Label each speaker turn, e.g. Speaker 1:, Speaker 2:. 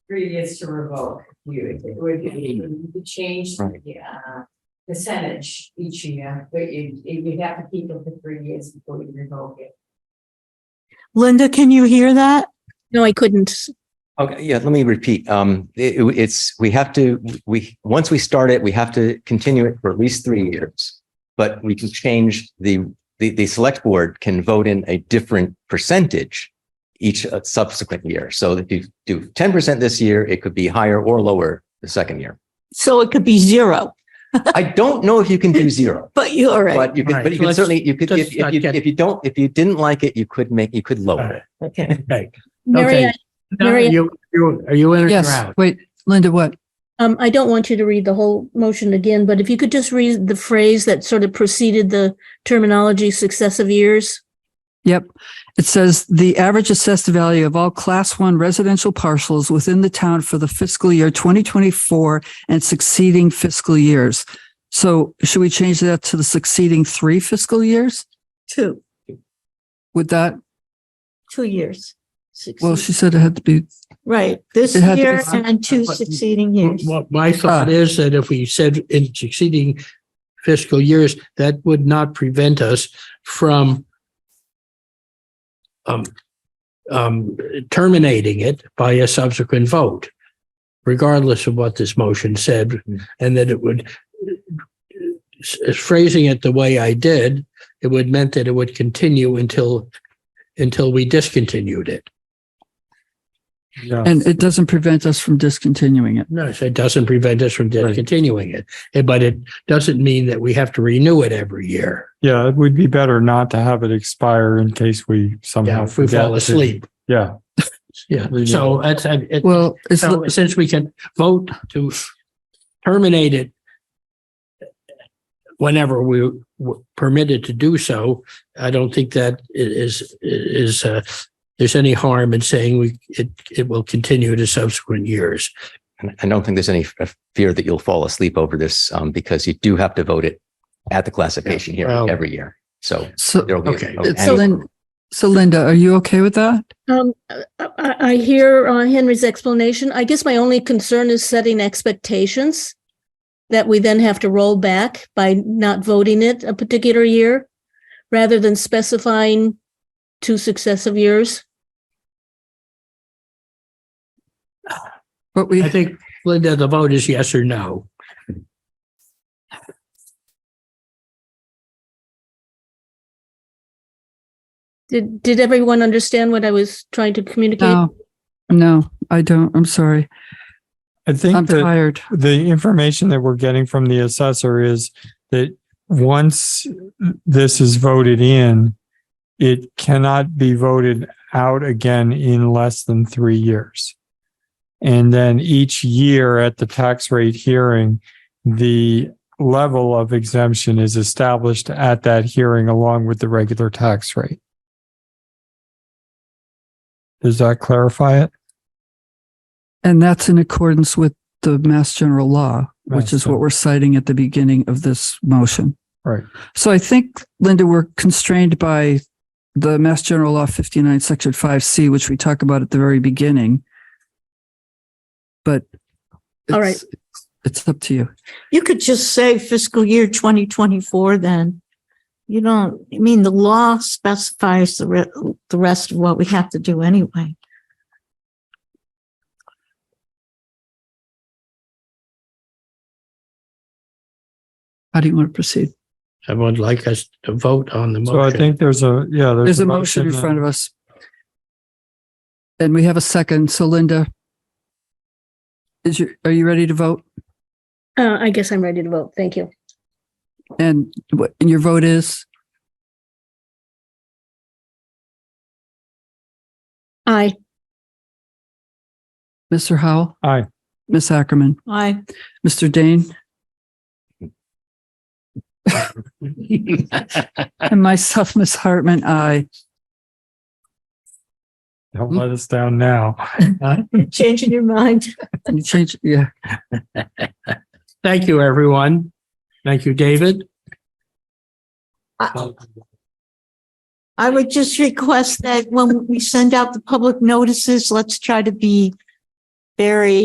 Speaker 1: previous to revoke, you, it would, you could change.
Speaker 2: Right.
Speaker 1: the, uh, Percentage each year, but you, you have to keep it for three years before you revoke it.
Speaker 3: Linda, can you hear that?
Speaker 4: No, I couldn't.
Speaker 2: Okay, yeah, let me repeat. Um, it- it's, we have to, we, once we start it, we have to continue it for at least three years. But we can change the, the, the select board can vote in a different percentage each uh, subsequent year. So if you do ten percent this year, it could be higher or lower the second year.
Speaker 3: So it could be zero,
Speaker 2: I don't know if you can do zero.
Speaker 3: but you're all right.
Speaker 2: But you can,
Speaker 5: Right.
Speaker 2: but you can
Speaker 5: Let's-
Speaker 2: certainly, you could, if,
Speaker 5: let's
Speaker 2: if
Speaker 5: not
Speaker 2: you,
Speaker 5: get-
Speaker 2: if you don't, if you didn't like it, you could make, you could lower it.
Speaker 5: Okay.
Speaker 4: Mary, I-
Speaker 5: Now, Are
Speaker 4: Mary-
Speaker 5: you, you- are you in or you're
Speaker 6: Yes,
Speaker 5: out?
Speaker 6: wait, Linda, what?
Speaker 4: um, I don't want you to read the whole motion again, but if you could just read the phrase that sort of preceded the terminology successive years.
Speaker 6: Yep. It says the average assessed value of all class one residential parcels within the town for the fiscal year 2024 and succeeding fiscal years. So should we change that to the succeeding three fiscal years?
Speaker 4: Two,
Speaker 6: Would that,
Speaker 7: two years.
Speaker 6: well, she said it had to be,
Speaker 7: Right, this
Speaker 6: It had to be-
Speaker 7: year and two
Speaker 5: But-
Speaker 7: succeeding years.
Speaker 5: What my thought is that if we said in succeeding fiscal years, that would not prevent us from um, um, terminating it by a subsequent vote, regardless of what this motion said, and that it would phrasing it the way I did, it would meant that it would continue until until we discontinued it.
Speaker 6: and it doesn't prevent us from discontinuing it.
Speaker 5: No, so it doesn't prevent us from discontinuing it, eh, but it doesn't mean that we have to renew it every year.
Speaker 8: Yeah, it would be better not to have it expire in case we
Speaker 5: Yeah,
Speaker 8: somehow.
Speaker 5: if we
Speaker 8: forget
Speaker 5: fall
Speaker 8: to-
Speaker 5: asleep.
Speaker 8: Yeah,
Speaker 5: Yeah, so that's, I- it,
Speaker 6: Well, it's,
Speaker 5: so since we can vote to terminate it whenever we were permitted to do so, I don't think that i- is, is, uh, there's any harm in saying we, it, it will continue to subsequent years.
Speaker 2: And I don't think there's any f- fear that you'll fall asleep over this, um, because you do have to vote it at the classification here
Speaker 5: well-
Speaker 2: every year. So
Speaker 6: so,
Speaker 2: there'll be.
Speaker 5: Okay.
Speaker 2: an
Speaker 6: so Lin- so Linda, are you okay with that?
Speaker 4: Um, I, I I hear uh, Henry's explanation. I guess my only concern is setting expectations that we then have to roll back by not voting it a particular year rather than specifying two successive years.
Speaker 6: But we,
Speaker 5: I think, Linda, the vote is yes or no.
Speaker 4: Did, did everyone understand what I was trying to communicate?
Speaker 6: no, no, I don't. I'm sorry.
Speaker 8: I
Speaker 6: I'm
Speaker 8: think that
Speaker 6: tired.
Speaker 8: the information that we're getting from the assessor is that once this is voted in, it cannot be voted out again in less than three years. And then each year at the tax rate hearing, the level of exemption is established at that hearing along with the regular tax rate. Does that clarify it?
Speaker 6: And that's in accordance with the Mass General Law,
Speaker 8: Mass
Speaker 6: which is
Speaker 8: General.
Speaker 6: what we're citing at the beginning of this motion.
Speaker 8: Right.
Speaker 6: So I think, Linda, we're constrained by the Mass General Law 59, Section 5C, which we talk about at the very beginning. But
Speaker 4: All right.
Speaker 6: it's- It's up to you.
Speaker 7: You could just say fiscal year twenty twenty-four then. You don't, I mean, the law specifies the re- the rest of what we have to do anyway.
Speaker 6: How do you want to proceed?
Speaker 5: I would like us to vote on the motion.
Speaker 8: So I think there's a, yeah, there's.
Speaker 6: There's a motion uh, in front of us. And we have a second. So Linda, is you, are you ready to vote?
Speaker 4: Uh, I guess I'm ready to vote. Thank you.
Speaker 6: And what, and your vote is?
Speaker 4: Aye.
Speaker 6: Mr. Howell,
Speaker 8: Aye.
Speaker 6: Miss Ackerman,
Speaker 7: I
Speaker 6: Mr. Dane, and myself, Miss Hartman, I.
Speaker 8: Don't let us down now.
Speaker 7: Hmm. changing your mind.
Speaker 6: You change, yeah.
Speaker 5: Thank you, everyone. Thank you, David. Um,
Speaker 7: I- I would just request that when we send out the public notices, let's try to be Barry